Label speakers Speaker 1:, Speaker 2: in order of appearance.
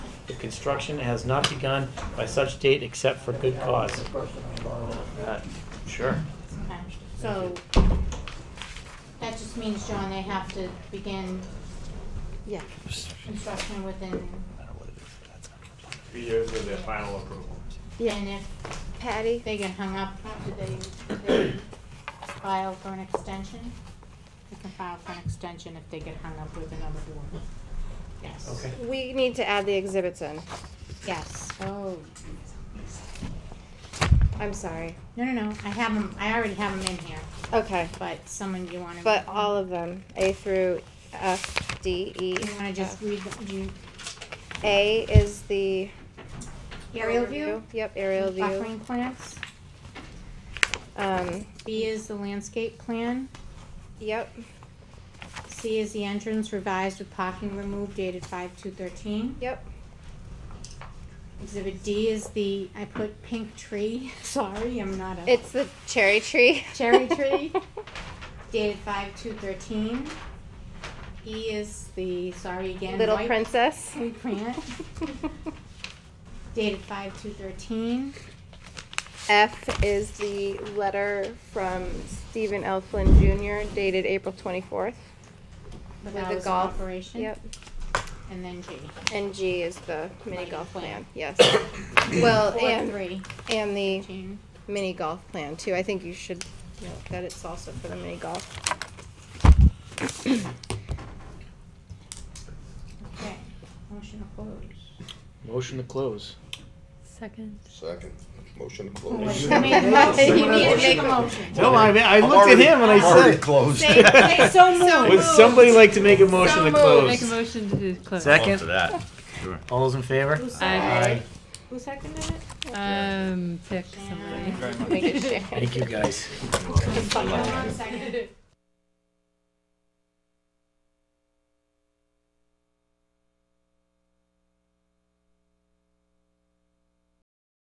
Speaker 1: if construction has not begun by such date except for good cause. Uh, Sure.
Speaker 2: Okay, so that just means, John, they have to begin
Speaker 3: Yeah.
Speaker 2: construction within,
Speaker 4: Three years of their final approval.
Speaker 2: and
Speaker 3: Yeah.
Speaker 2: if
Speaker 3: Patty?
Speaker 2: they get hung up, do they, do they file for an extension? They can file for an extension if they get hung up with another board. Yes.
Speaker 1: Okay.
Speaker 3: We need to add the exhibits in.
Speaker 2: Yes, oh,
Speaker 3: I'm sorry.
Speaker 2: no, no, no, I have them, I already have them in here,
Speaker 3: Okay.
Speaker 2: but someone, you wanna?
Speaker 3: But all of them, A through F, D, E.
Speaker 2: You wanna just
Speaker 3: F.
Speaker 2: read, the- do you,
Speaker 3: A is the.
Speaker 2: aerial view?
Speaker 3: Yep, aerial view.
Speaker 2: Buffering plants?
Speaker 3: Um,
Speaker 2: B is the landscape plan.
Speaker 3: yep,
Speaker 2: C is the entrance revised with parking removed dated five two thirteen.
Speaker 3: yep.
Speaker 2: Exhibit D is the, I put pink tree, sorry, I'm not a.
Speaker 3: It's the cherry tree.
Speaker 2: Cherry tree. Dated five two thirteen. E is the, sorry again.
Speaker 3: Little
Speaker 2: white
Speaker 3: princess.
Speaker 2: tree plant dated five two thirteen.
Speaker 3: F is the letter from Stephen L. Flynn Jr. dated April 24th.
Speaker 2: With
Speaker 3: the
Speaker 2: hours of
Speaker 3: golf.
Speaker 2: operation.
Speaker 3: Yep.
Speaker 2: And then G.
Speaker 3: And G is the mini
Speaker 2: Mini
Speaker 3: golf plan.
Speaker 2: plan.
Speaker 3: Yes. well,
Speaker 2: Four
Speaker 3: Oh, and,
Speaker 2: three,
Speaker 3: and the
Speaker 2: June.
Speaker 3: mini golf plan too. I think you should note that it's also for the mini golf.
Speaker 2: Okay, motion to close.
Speaker 1: Motion to close.
Speaker 5: Second.
Speaker 6: Second, motion to
Speaker 2: Wait,
Speaker 6: close.
Speaker 2: You made a motion. You need to make a motion.
Speaker 1: No, I, I
Speaker 6: I'm
Speaker 1: looked at
Speaker 6: already-
Speaker 1: him and I
Speaker 6: I'm already
Speaker 1: said,
Speaker 6: closed.
Speaker 2: Say, say so moved.
Speaker 1: would somebody like to make a motion to
Speaker 5: Make a
Speaker 1: close?
Speaker 5: motion to close.
Speaker 1: Second?
Speaker 7: that, sure.
Speaker 1: All those in favor?
Speaker 5: Aye.
Speaker 2: Who seconded it?
Speaker 5: Um, pick somebody.
Speaker 2: Thank
Speaker 3: Make it share.
Speaker 1: Thank you, guys.
Speaker 2: Someone seconded it.